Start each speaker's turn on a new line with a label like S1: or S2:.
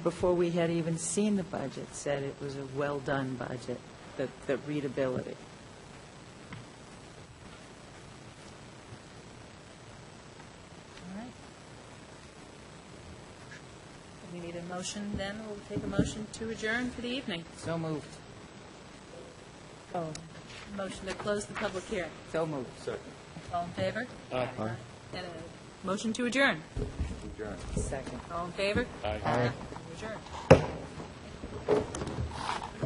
S1: before we had even seen the budget, said it was a well-done budget, the, the readability.
S2: All right. We need a motion then, we'll take a motion to adjourn for the evening.
S1: So moved.
S2: Oh. Motion to close the public hearing.
S1: So moved.
S2: All in favor? Aye. And a motion to adjourn.
S1: Second.
S2: All in favor? Aye. Adjourn.